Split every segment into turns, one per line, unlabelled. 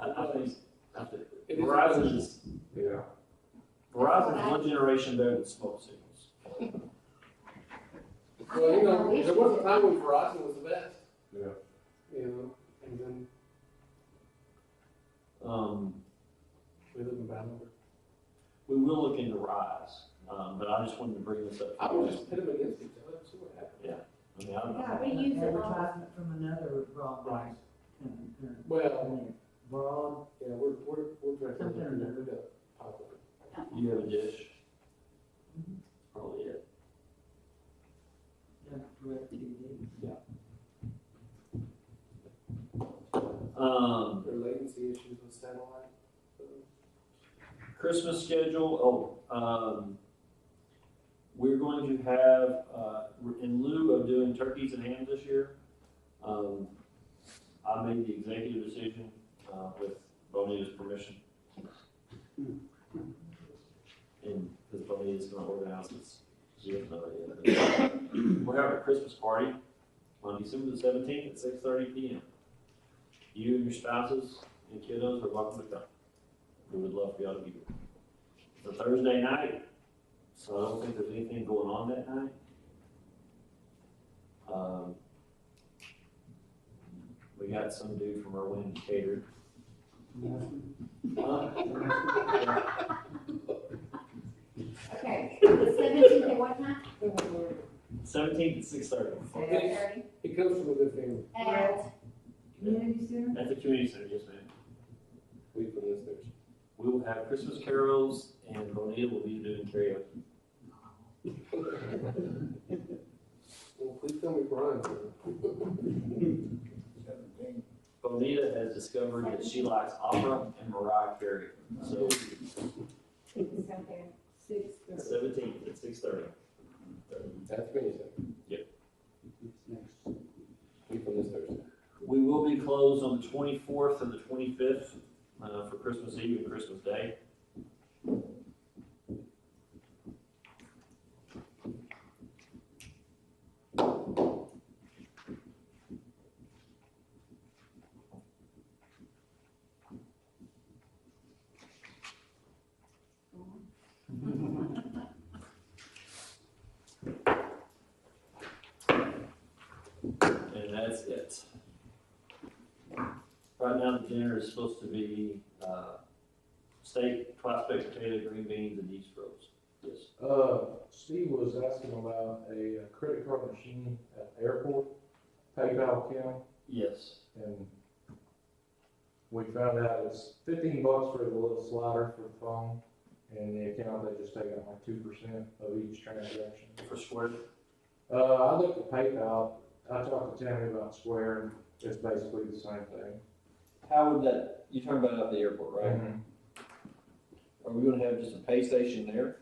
I, I think, I think Verizon is,
Yeah.
Verizon's one generation better than smoke signals.
Well, you know, there was a time when Verizon was the best.
Yeah.
You know, and then
Um,
we live in battle.
we will look into Rise, um, but I just wanted to bring this up.
I would just pit them against each other, see what happens.
I mean, I don't
Yeah,
know.
we use it all.
Advertisement from another broadband. company, uh,
Well,
Broad,
yeah, we're, we're, we're directly looking at the pipeline.
You have a dish? Probably it.
uh, direct TV.
Um,
Their latency issues with satellite. so.
Christmas schedule, oh, um, we're going to have, uh, in lieu of doing turkeys and ham this year, um, I made the executive decision, uh, with Bonita's permission. And, because Bonita's gonna organize this, she has no idea. We're having a Christmas party on December the seventeenth at six thirty P M. You and your spouses and kiddos are welcome to come. We would love for y'all to be here. It's a Thursday night, so I don't think there's anything going on that night. Um, we got some dude from Irwin catered. Uh,
Okay, the seventeenth at what time?
Seventeenth at six thirty,
Seven thirty.
It comes from a good family.
At,
Community center?
at the community center, yes ma'am.
We from this nation.
We will have Christmas carols and Bonita will be doing karaoke.
Well, please tell me Brian.
Bonita has discovered that she likes opera and Mariah Carey, so
it's out there, six thirty.
seventeenth at six thirty.
That's me.
Yep.
We from this Thursday.
We will be closed on the twenty-fourth and the twenty-fifth, uh, for Christmas Eve and Christmas Day. And that's it. Right now, the dinner is supposed to be, uh, steak, twice baked potato, green beans, and yeast rolls. Yes.
Uh, Steve was asking about a uh, credit card machine at the airport, PayPal account,
Yes.
and we found out it's fifteen bucks for the little slider for the phone, and the account, they just take out like two percent of each transaction.
For square,
Uh, I looked at PayPal, I talked to Tammy about Square, and it's basically the same thing.
How would that, you're talking about out the airport, right?
Mm-hmm.
Mm-hmm.
Are we gonna have just a pay station there?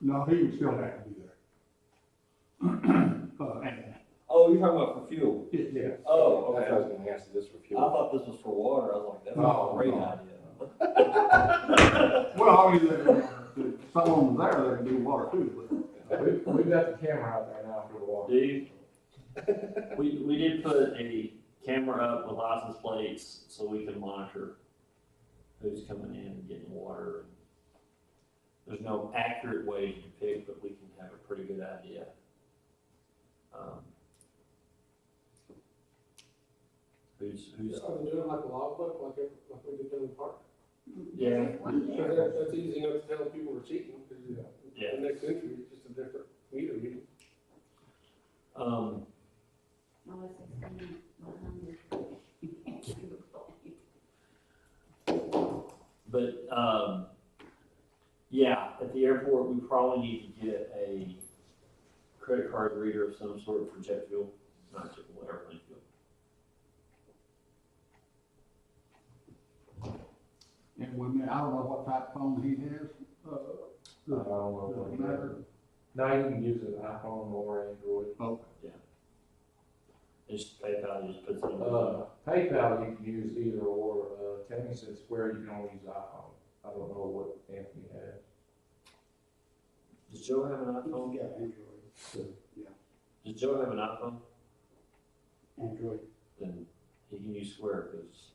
No, he would still have to be there. Uh, and-
Oh, you're talking about for fuel?
Yeah. Uh,
Oh, okay.
That's how I
I
was gonna ask this for fuel.
thought this was for water. I was like, that's
No,
Oh,
a great
no.
idea.
Well, I mean, if someone was there, they could do water too,
We, we've got the camera out there now for the walk.
do you? We, we did put a camera up with license plates so we can monitor who's coming in and getting water. There's no accurate way to depict, but we can have a pretty good idea. um, Who's, who's,
Just have to do it like a logbook, like, every- like we did down in the park.
yeah,
One
So
there.
that, that's easy enough to tell if people were cheating, because
Yeah.
the next entry is just a different meter reading.
um.
Oh, it's extended.
But, um, yeah, at the airport, we probably need to get a credit card reader of some sort for jet fuel, not jet fuel, airplane fuel.
but, and we may, I don't know what type of phone he has, uh,
I don't know.
doesn't
what it
matter.
is. Now you can use an iPhone or Android.
Oh,
Okay.
And just PayPal, just puts it in.
Uh, PayPal, you can use either or, uh, Tammy said Square, you can only use iPhone. I don't know what Anthony had.
Does Joe have an iPhone?
oh, Yeah, Android,
Does Joe have an iPhone?
Android.
Then he can use Square, because